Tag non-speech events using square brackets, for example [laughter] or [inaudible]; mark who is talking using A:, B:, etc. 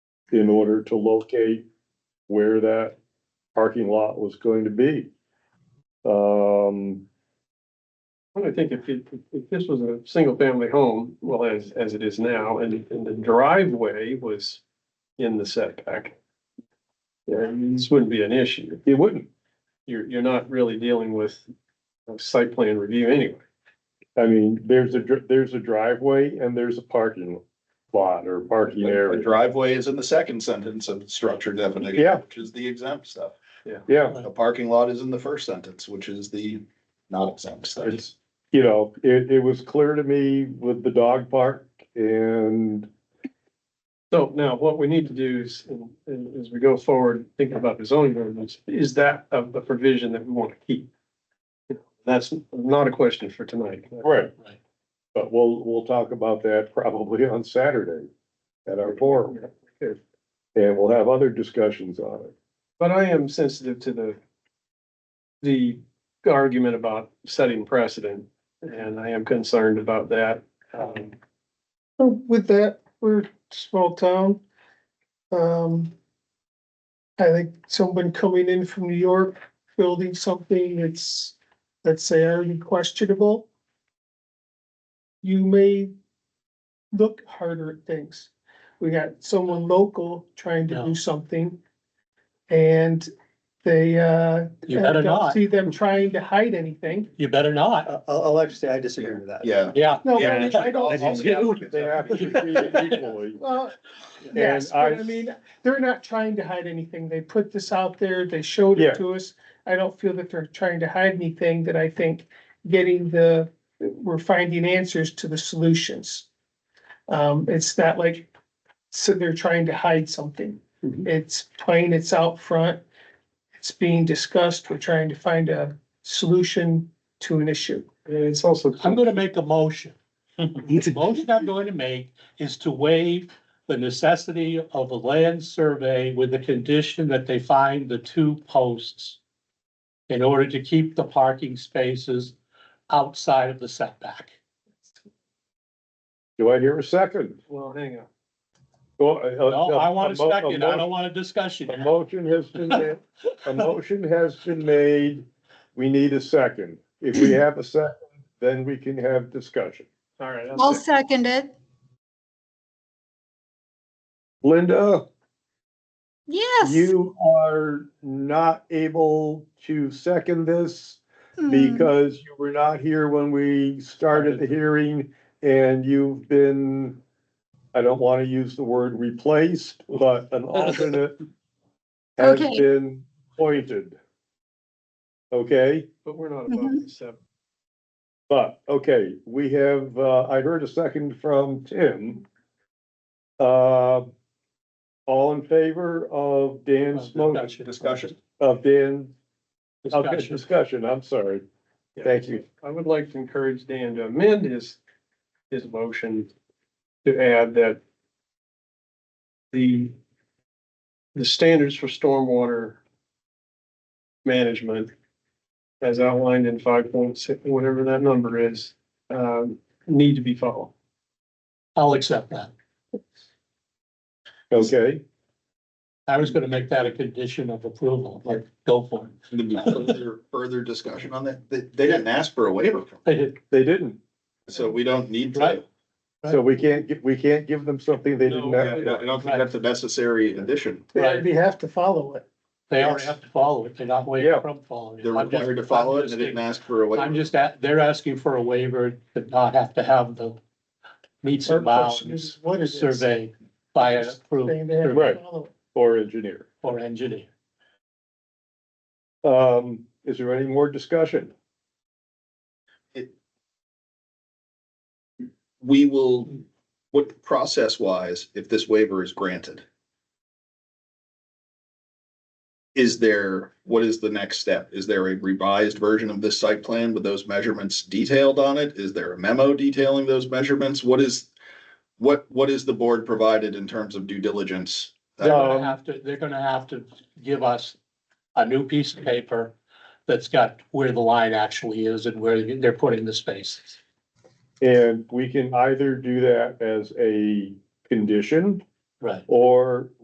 A: in order to locate where that parking lot was going to be. Um,
B: Well, I think if, it- if this was a single family home, well, as, as it is now, and, and the driveway was in the setback. Then this wouldn't be an issue.
A: it wouldn't,
B: You're, you're not really dealing with a site plan review anyway.
A: I mean, there's a, dr- there's a driveway and there's a parking lot or parking
C: The
A: area.
C: driveway is in the second sentence of structure definition.
A: Yeah.
C: Which is the exempt stuff.
A: Yeah,
C: The parking lot is in the first sentence, which is the not exempt stuff.
A: it's, you know, it, it was clear to me with the dog park and
B: So now what we need to do is, and- and as we go forward, thinking about the zoning ordinance, is that a, a provision that we want to keep? That's not a question for tonight.
A: Right.
D: Right.
A: But we'll, we'll talk about that probably on Saturday at our forum,
B: Okay.
A: and we'll have other discussions on it.
B: But I am sensitive to the, the argument about setting precedent, and I am concerned about that. Um,
E: So With that, we're a small town. Um. I think someone coming in from New York, building something that's, let's say, already questionable. You may look harder at things. We got someone local trying to
D: No.
E: do something. And they, uh,
D: You better
E: I don't
D: not,
E: see them trying to hide anything.
D: you better not,
F: I'll, I'll actually, I disagree with that.
C: Yeah.
D: yeah.
E: No,
C: Yeah.
E: I I don't.
A: They have to be
D: [laughs]
A: treated equally.
E: Well,
A: And
E: yes, but
A: I-
E: I mean, they're not trying to hide anything. They put this out there, they showed
A: Yeah.
E: it to us. I don't feel that they're trying to hide anything that I think getting the, we're finding answers to the solutions. Um, it's not like, so they're trying to hide something.
A: Mm-hmm.
D: Mhm.
E: It's plain, it's out front. It's being discussed. We're trying to find a solution to an issue.
B: And it's also.
D: I'm gonna make a motion. The motion I'm going to make is to waive the necessity of a land survey with the condition that they find the two posts in order to keep the parking spaces outside of the setback.
A: Do I hear a second?
B: Well, hang on.
A: No,
D: No, I want a second, I don't want a discussion.
A: A motion has
D: [laughs]
A: been, made. a motion has been made, we need a second. If we have a second, then we can have discussion.
B: All right.
G: I'll
B: I'll say-
G: second it.
A: Linda?
G: Yes.
A: You are not able to second this
G: Mm.
A: because you were not here when we started the hearing and you've been, I don't want to use the word replaced, but an alternate has
G: Okay.
A: been appointed. Okay,
B: But we're not about to accept.
A: but, okay, we have, uh, I heard a second from Tim. Uh, all in favor of Dan's motion?
C: Discussion.
A: of Dan, of the
D: Discussion.
A: discussion, I'm sorry.
B: Yeah.
A: Thank you.
B: I would like to encourage Dan to amend his, his motion to add that the, the standards for stormwater management as outlined in five point six, whatever that number is, um, need to be followed.
D: I'll accept that.
A: Okay,
D: I was gonna make that a condition of approval, like, go for it.
C: [laughs] Further- Further discussion on that. They, they didn't ask for a waiver, from
D: I [laughs] did,
A: they didn't,
C: it, so we don't need to.
D: Right.
A: so we can't, gi- we can't give them something they didn't
C: I
A: have.
C: don't I don't think that's a necessary addition.
E: They
D: Right.
E: already have to follow it.
D: they already have to follow it, they're not waiting
A: Yeah.
D: from following it.
C: They're
D: I'm just-
C: required to follow
D: I'm
C: it and they
D: just
C: didn't ask for a
D: I'm
C: waiver.
D: just at, they're asking for a waiver to not have to have the meets and bounds
E: Is What is it?
D: survey by an approved
E: Saying they have to
A: Right.
E: follow it.
A: Or engineer.
D: or engineer.
A: Um, is there any more discussion?
C: We will, what process wise, if this waiver is granted? Is there, what is the next step? Is there a revised version of this site plan with those measurements detailed on it? Is there a memo detailing those measurements? What is, what, what is the board provided in terms of due diligence?
D: They're
A: Um,
D: gonna have to, they're gonna have to give us a new piece of paper that's got where the line actually is and where they're putting the spaces.
A: And we can either do that as a condition
D: Right.
A: or